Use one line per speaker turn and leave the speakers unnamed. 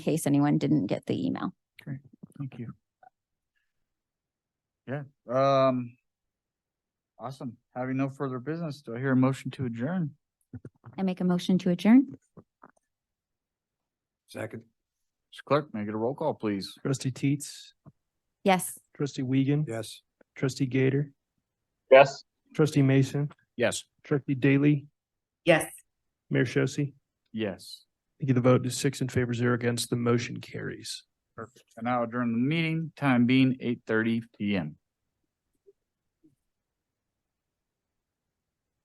case anyone didn't get the email.
Thank you. Yeah, um. Awesome. Having no further business, do I hear a motion to adjourn?
I make a motion to adjourn.
Second.
Mr. Clerk, may I get a roll call, please?
Trustee Teets,
Yes.
trustee Wiegand.
Yes.
Trustee Gator,
Yes.
trustee Mason,
Yes.
trustee Daly,
Yes.
Mayor Shosse.
Yes.
Thank you. The vote is six in favor, zero against. The motion carries.
Perfect. And now adjourn the meeting, time being eight thirty PM.